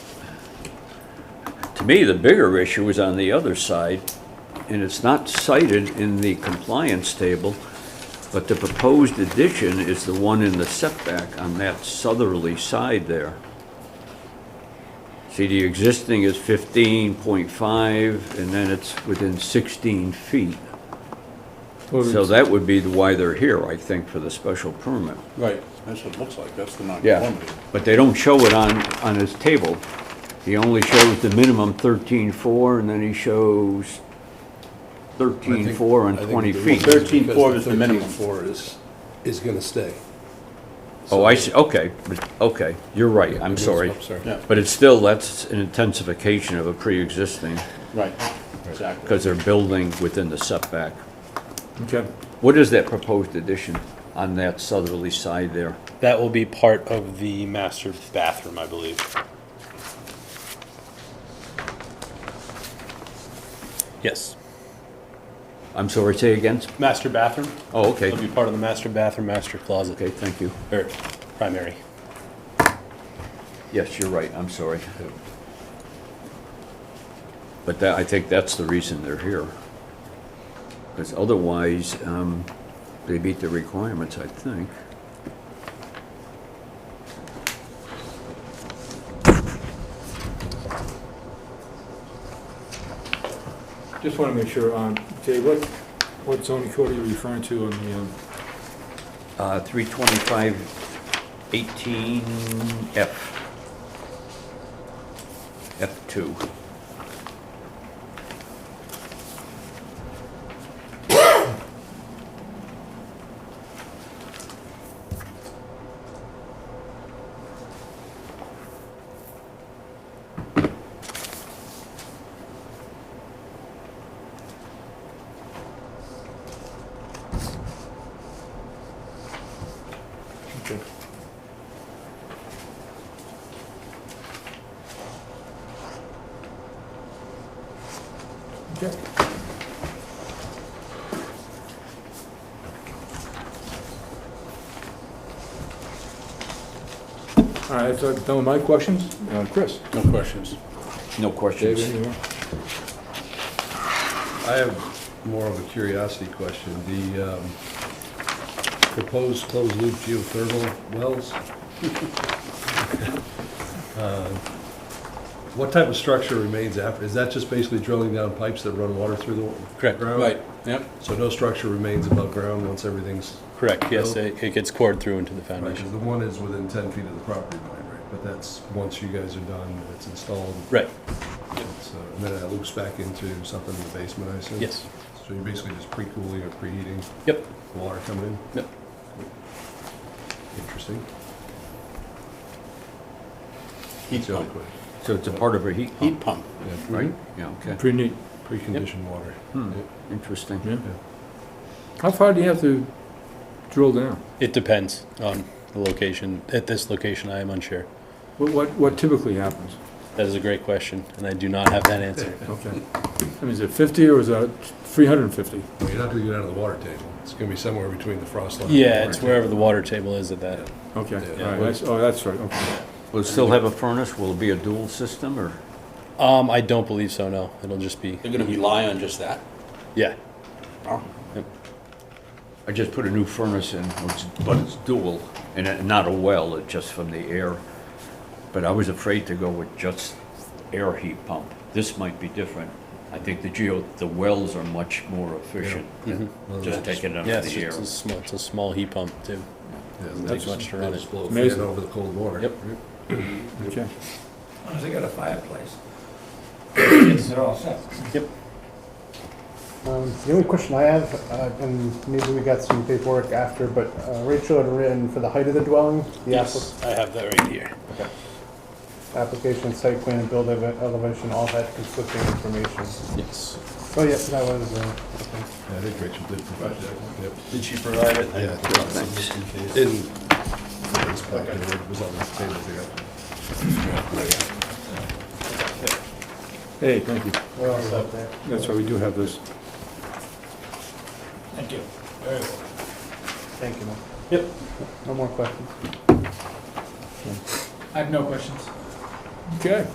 To me, the bigger issue is on the other side, and it's not cited in the compliance table, but the proposed addition is the one in the setback on that southerly side there. See, the existing is fifteen point five, and then it's within sixteen feet. So that would be the why they're here, I think, for the special permit. Right, that's what it looks like, that's the Yeah, non-conformity. but they don't show it on, on his table. He only shows the minimum thirteen-four, and then he shows thirteen-four on twenty feet. Thirteen four is the minimum. Four is, is gonna stay. Oh, I see, okay, but- okay, you're right, I'm sorry. I'm sorry. Yeah. But it's still, that's an intensification of a pre-existing, Right, exactly. because they're building within the setback. Okay. What is that proposed addition on that southerly side there? That will be part of the master bathroom, I believe. Yes, I'm sorry, say again? master bathroom. Oh, okay, It'll be part of the master bathroom, master closet, okay, thank you. or primary. Yes, you're right, I'm sorry. But that, I think that's the reason they're here. Because otherwise, um, they meet the requirements, I think. Just want to make sure, um, Jay, what, what zoning code are you referring to on the, um, Uh, three twenty-five eighteen F. F two. okay. Okay. All right, so done with my questions. Uh, Chris? No questions. No Dave, questions. any more? I have more of a curiosity question. The um, proposed closed-loop geothermal wells? Uh, What type of structure remains after? Is that just basically drilling down pipes that run water through the Correct. ground? Right, yep. So no structure remains above ground once everything's, Correct, yes, Nope. it it gets cored through into the right, foundation. the one is within 10 feet of the property line, right? But that's, once you guys are done, it's installed. Right, So, and then it loops back into something in the basement, I assume? yes, So you're basically just pre-cooling or preheating yep, the water coming in? yep. Interesting. Heat Really pump, quick. So it's a part of a heat heat pump. pump, right? Yeah, okay, Pretty neat. Preconditioned water. Hmm. Yeah. interesting. Yeah. How far do you have to drill down? It depends on the location. At this location, I am unsure. What, what what typically happens? That is a great question, and I do not have that answer. Okay. I mean, is it 50 or is it 350? Well, you're not gonna get out of the water table. It's gonna be somewhere between the frost line. and the Yeah, water it's table. wherever the water table is at that. Okay, all right, Yeah. that's- oh, that's right, okay. Will it still have a furnace? Will it be a dual system, or? Um, I don't believe so, no. It'll just be, They're gonna rely on just that? yeah. Oh, I just put a new furnace in, which- but it's dual, and it- not a well, it's just from the air. But I was afraid to go with just air heat pump. This might be different. I think the geo, the wells are much more efficient than just taking it out Yeah, of it's the air. just a small, it's a small heat pump too. Yeah, Doesn't that's- take much to run that's it. blow a fan Amazing. over the cold water. Yep. Okay. Unless they got a fireplace. They're all set. Um, The only question I have, uh, and maybe we got some paperwork after, but uh, Rachel had written for the height of the dwelling, the appli- I have that right here. application, site plan, and build eleva- elevation, all that conflicting information. Yes. Oh, yes, that was, uh, okay. Yeah, I think Rachel did provide that. Yep. Did she provide it? Yeah. In, it's back in there. it was on this table here. Hey, thank you. we're all set there. That's why we do have this. Thank you. Very well. Thank you, Mike. Yep. No more questions. I have no questions. Okay.